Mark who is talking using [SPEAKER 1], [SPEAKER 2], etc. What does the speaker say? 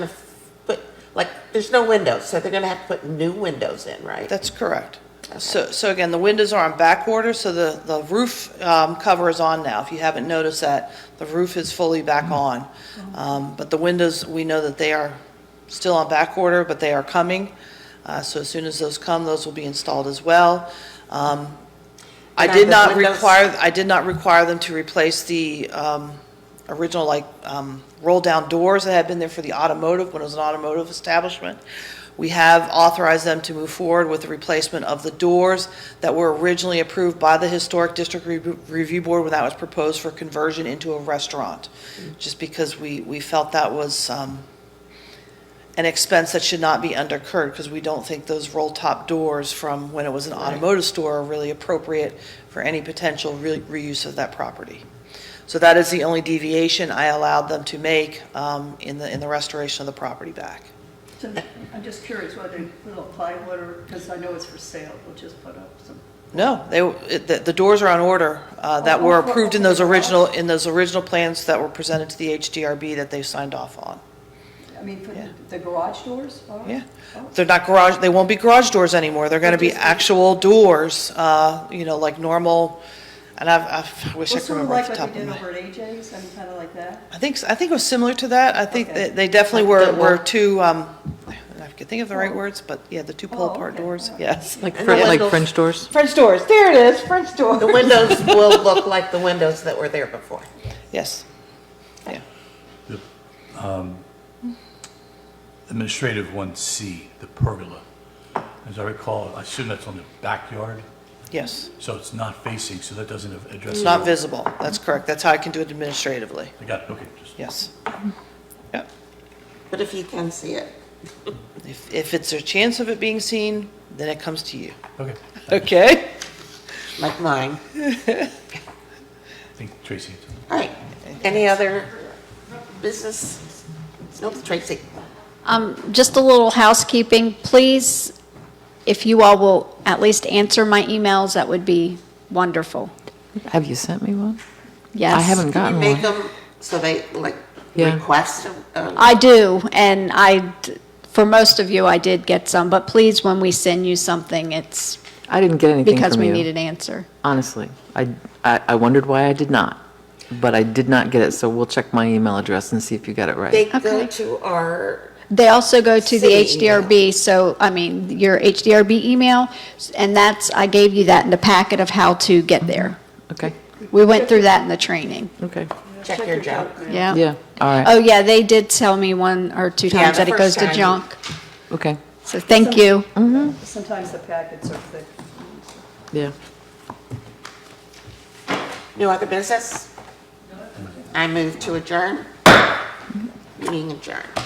[SPEAKER 1] But, like, there's no windows, so they're gonna have to put new windows in, right?
[SPEAKER 2] That's correct. So, so again, the windows are on back order, so the, the roof um, cover is on now. If you haven't noticed that, the roof is fully back on. Um, But the windows, we know that they are still on back order, but they are coming. Uh, So as soon as those come, those will be installed as well. Um, I
[SPEAKER 1] And are
[SPEAKER 2] did
[SPEAKER 1] the
[SPEAKER 2] not
[SPEAKER 1] windows-
[SPEAKER 2] require, I did not require them to replace the um, original, like, um, roll-down doors that had been there for the automotive, when it was an automotive establishment. We have authorized them to move forward with the replacement of the doors that were originally approved by the Historic District Re- Review Board when that was proposed for conversion into a restaurant, just because we, we felt that was um, an expense that should not be undercurred, because we don't think those roll-top doors from when it was an automotive store are really appropriate for any potential re- reuse of that property. So that is the only deviation I allowed them to make um, in the, in the restoration of the property back.
[SPEAKER 3] So I'm just curious whether little plywood or, because I know it's for sale, we'll just put up some.
[SPEAKER 2] No, they, it- the, the doors are on order uh, that were approved in those original, in those original plans that were presented to the HDRB that they signed off on.
[SPEAKER 3] I mean, for
[SPEAKER 2] Yeah.
[SPEAKER 3] the garage doors? Oh, are-
[SPEAKER 2] Yeah.
[SPEAKER 3] are-
[SPEAKER 2] They're not garage, they won't be garage doors anymore. They're going to be
[SPEAKER 3] They'll just be-
[SPEAKER 2] actual doors, uh, you know, like normal, and I've, I wish I
[SPEAKER 3] Well,
[SPEAKER 2] could
[SPEAKER 3] sort of
[SPEAKER 2] remember off
[SPEAKER 3] like
[SPEAKER 2] the top
[SPEAKER 3] what
[SPEAKER 2] of
[SPEAKER 3] we
[SPEAKER 2] my
[SPEAKER 3] did
[SPEAKER 2] head.
[SPEAKER 3] over at AJ's, I mean, kind of like that.
[SPEAKER 2] I think, s- I think it was similar to that. I think
[SPEAKER 3] Okay.
[SPEAKER 2] that they definitely were,
[SPEAKER 1] Like the
[SPEAKER 2] were
[SPEAKER 1] wall-
[SPEAKER 2] two, um, I can think of the right words, but yeah, the two
[SPEAKER 3] Oh,
[SPEAKER 2] pull-apart
[SPEAKER 3] okay.
[SPEAKER 2] doors,
[SPEAKER 3] All right.
[SPEAKER 2] yes.
[SPEAKER 4] Like,
[SPEAKER 1] And
[SPEAKER 4] Fre-
[SPEAKER 1] the
[SPEAKER 4] like
[SPEAKER 1] windows.
[SPEAKER 4] French doors?
[SPEAKER 2] French doors, there it is, French
[SPEAKER 1] The
[SPEAKER 2] door.
[SPEAKER 1] windows will look like the windows that were there before.
[SPEAKER 2] Yes. Yeah.
[SPEAKER 5] Administrative 1C, the pergola. As I recall, I assume that's on the backyard,
[SPEAKER 2] Yes.
[SPEAKER 5] so it's not facing, so that doesn't address.
[SPEAKER 2] It's
[SPEAKER 5] the-
[SPEAKER 2] not visible. That's correct. That's how I can do it administratively.
[SPEAKER 5] I got it, okay. just-
[SPEAKER 2] Yes. Yep.
[SPEAKER 1] But if you can see it,
[SPEAKER 2] If, if it's a chance of it being seen, then it comes to you.
[SPEAKER 5] Okay.
[SPEAKER 2] Okay?
[SPEAKER 1] like mine.
[SPEAKER 5] I think Tracy. had something.
[SPEAKER 1] All right, any other business? Nope, Tracy.
[SPEAKER 6] Um, Just a little housekeeping, please, if you all will at least answer my emails, that would be wonderful.
[SPEAKER 4] Have you sent me one?
[SPEAKER 6] Yes.
[SPEAKER 4] I haven't
[SPEAKER 1] You
[SPEAKER 4] gotten
[SPEAKER 1] make
[SPEAKER 4] one.
[SPEAKER 1] them so they, like,
[SPEAKER 4] Yeah.
[SPEAKER 1] request them? uh,
[SPEAKER 6] I do, and I, d- for most of you, I did get some, but please, when we send you something, it's
[SPEAKER 4] I didn't get anything
[SPEAKER 6] because
[SPEAKER 4] from
[SPEAKER 6] we need
[SPEAKER 4] you,
[SPEAKER 6] an answer.
[SPEAKER 4] honestly. I, I I wondered why I did not, but I did not get it, so we'll check my email address and see if you got it
[SPEAKER 1] They
[SPEAKER 4] right.
[SPEAKER 1] go
[SPEAKER 6] Okay.
[SPEAKER 1] to our,
[SPEAKER 6] They also go to the
[SPEAKER 1] City email.
[SPEAKER 6] HDRB, so, I mean, your HDRB email, and that's, I gave you that in the packet of how to get there.
[SPEAKER 4] Okay,
[SPEAKER 6] We went through that in the training,
[SPEAKER 4] okay,
[SPEAKER 1] check your junk.
[SPEAKER 6] yeah?
[SPEAKER 4] yeah, all
[SPEAKER 6] Oh,
[SPEAKER 4] right,
[SPEAKER 6] yeah, they did tell me one or two
[SPEAKER 1] Yeah,
[SPEAKER 6] times
[SPEAKER 1] the
[SPEAKER 6] that it
[SPEAKER 1] first
[SPEAKER 6] goes to
[SPEAKER 1] time.
[SPEAKER 6] junk.
[SPEAKER 4] okay,
[SPEAKER 6] So thank you.
[SPEAKER 3] Sometimes the packets are thick.
[SPEAKER 4] yeah.
[SPEAKER 1] New other business? I move to adjourn. Meeting adjourned.